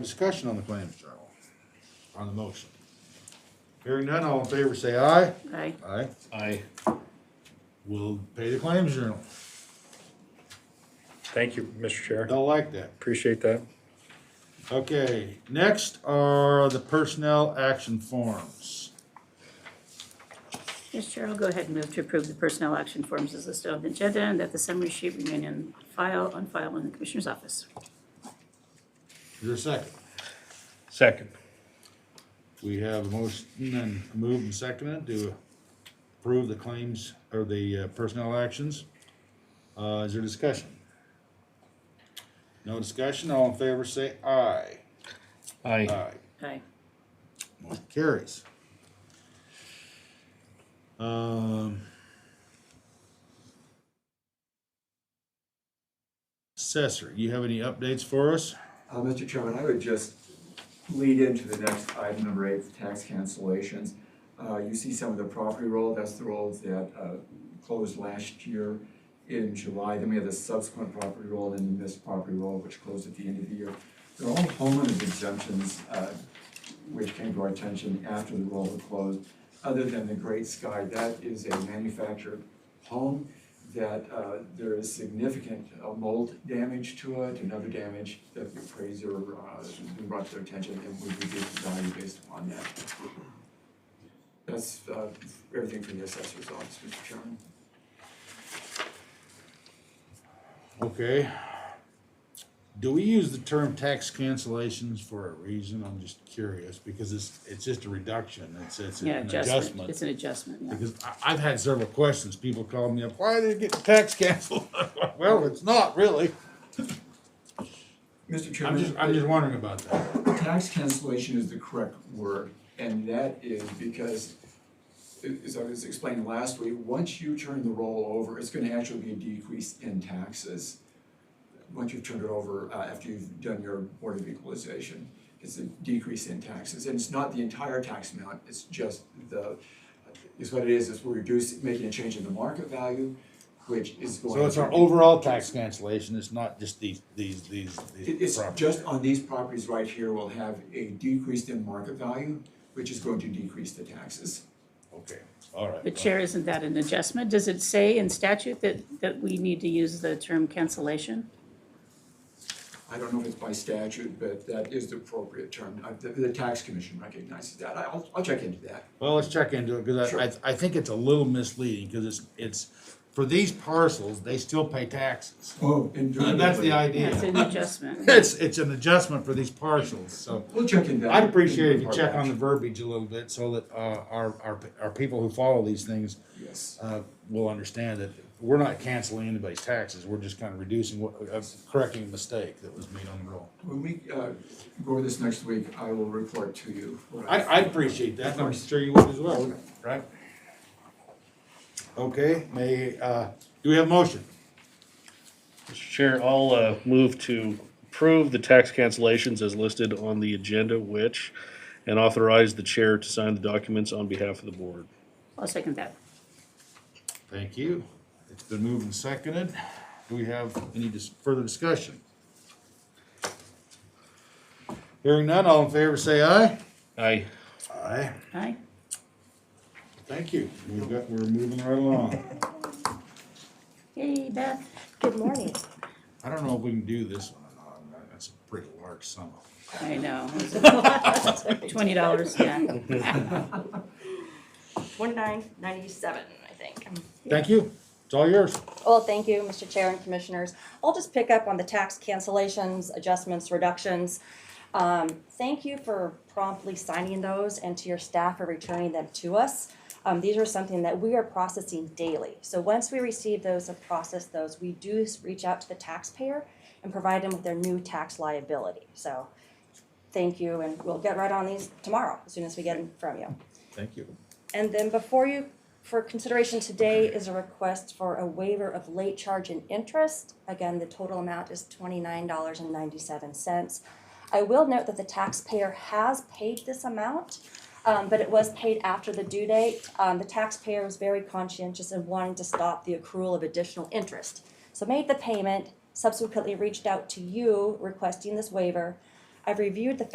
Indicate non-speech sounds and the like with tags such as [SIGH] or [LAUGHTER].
Discussion on the claims journal, on the motion. Hearing none, all in favor say aye. Aye. Aye. I We'll pay the claims journal. Thank you, Mr. Chair. Don't like that. Appreciate that. Okay, next are the personnel action forms. Mr. Chair, I'll go ahead and move to approve the personnel action forms as listed on the agenda and that the summary sheet remain in file, on file in the Commissioner's office. Your second. Second. We have a motion and moved and seconded to approve the claims or the uh, personnel actions. Uh, is there discussion? No discussion, all in favor say aye. Uh, I Aye. Aye. Motion carries. Um. Assessor, you have any updates for us? Uh, Mr. Chairman, I would just lead into the next item, number eight, the tax cancellations. Uh, you see some of the property roll, that's the rolls that, uh, closed last year in July. Then we have the subsequent property roll and the missed property roll, which closed at the end of the year. They're all homeowners exemptions, uh, which came to our attention after the roll had closed. Other than the Great Sky, that is a manufactured home that uh, there is significant uh, mold damage to it and other damage that the appraiser uh, brought to their attention and we reduced the value based upon that. That's uh, everything from the assessor's office, Mr. Chairman. Okay. Do we use the term tax cancellations for a reason? I'm just curious, because it's, it's just a reduction, it's, it's an Yeah, adjustment. adjustment. It's an adjustment, yeah. Because I, I've had several questions, people call me up, why did it get tax canceled? [LAUGHS] Well, it's not really, Mr. I'm Chairman. just, I'm just wondering about that. Tax cancellation is the correct word, and that is because, as I was explaining last week, once you turn the roll over, it's gonna actually be a decrease in taxes. Once you've turned it over, uh, after you've done your Board of Equalization, it's a decrease in taxes, and it's not the entire tax amount, it's just the, is what it is, is we're reducing, making a change in the market value, which is going So it's our to- overall tax cancellation, it's not just these, these, these, it- these It's properties. just on these properties right here, we'll have a decrease in market value, which is going to decrease the taxes. Okay, all right. But Chair, isn't that an adjustment? Does it say in statute that, that we need to use the term cancellation? I don't know if it's by statute, but that is the appropriate term. Uh, The, the tax commission recognizes that. I- I'll, I'll check into that. Well, let's check into it, cause I, Sure. I, I think it's a little misleading, cause it's, it's, for these parcels, they still pay taxes. Oh. And And that's the Yeah, idea. It's an adjustment. It's, it's an adjustment for these parcels, so We'll check into that. I'd appreciate if you Part check on the of verbiage a little bit so that, uh, our, our, our people who follow these things, that. Yes. uh, will understand that we're not canceling anybody's taxes, we're just kind of reducing what, uh, correcting a mistake that was made on the roll. When we, uh, go over this next week, I will report to you. what I, I appreciate that, and I'm sure you would as well, right? Okay, may, uh, do we have a motion? Mr. Chair, I'll uh, move to approve the tax cancellations as listed on the agenda, which, and authorize the chair to sign the documents on behalf of the board. I'll second that. Thank you. It's been moved and seconded. Do we have any dis- further discussion? Hearing none, all in favor say aye. Aye. Aye. Aye? Thank you. We've got, we're moving right along. Yay, Beth. Good morning. I don't know if we can do this one or not. That's a pretty large sum. I know. Twenty dollars, yeah. One nine ninety-seven, I think. Thank you. It's all yours. Well, thank you, Mr. Chair and Commissioners. I'll just pick up on the tax cancellations, adjustments, reductions. Um, thank you for promptly signing those and to your staff for returning them to us. Um, these are something that we are processing daily. So once we receive those and process those, we do s- reach out to the taxpayer and provide them with their new tax liability. So, thank you, and we'll get right on these tomorrow, as soon as we get them from you. Thank you. And then before you, for consideration today is a request for a waiver of late charge and interest. Again, the total amount is twenty-nine dollars and ninety-seven cents. I will note that the taxpayer has paid this amount, um, but it was paid after the due date. Um, the taxpayer was very conscientious in wanting to stop the accrual of additional interest. So made the payment, subsequently reached out to you requesting this waiver. I've reviewed the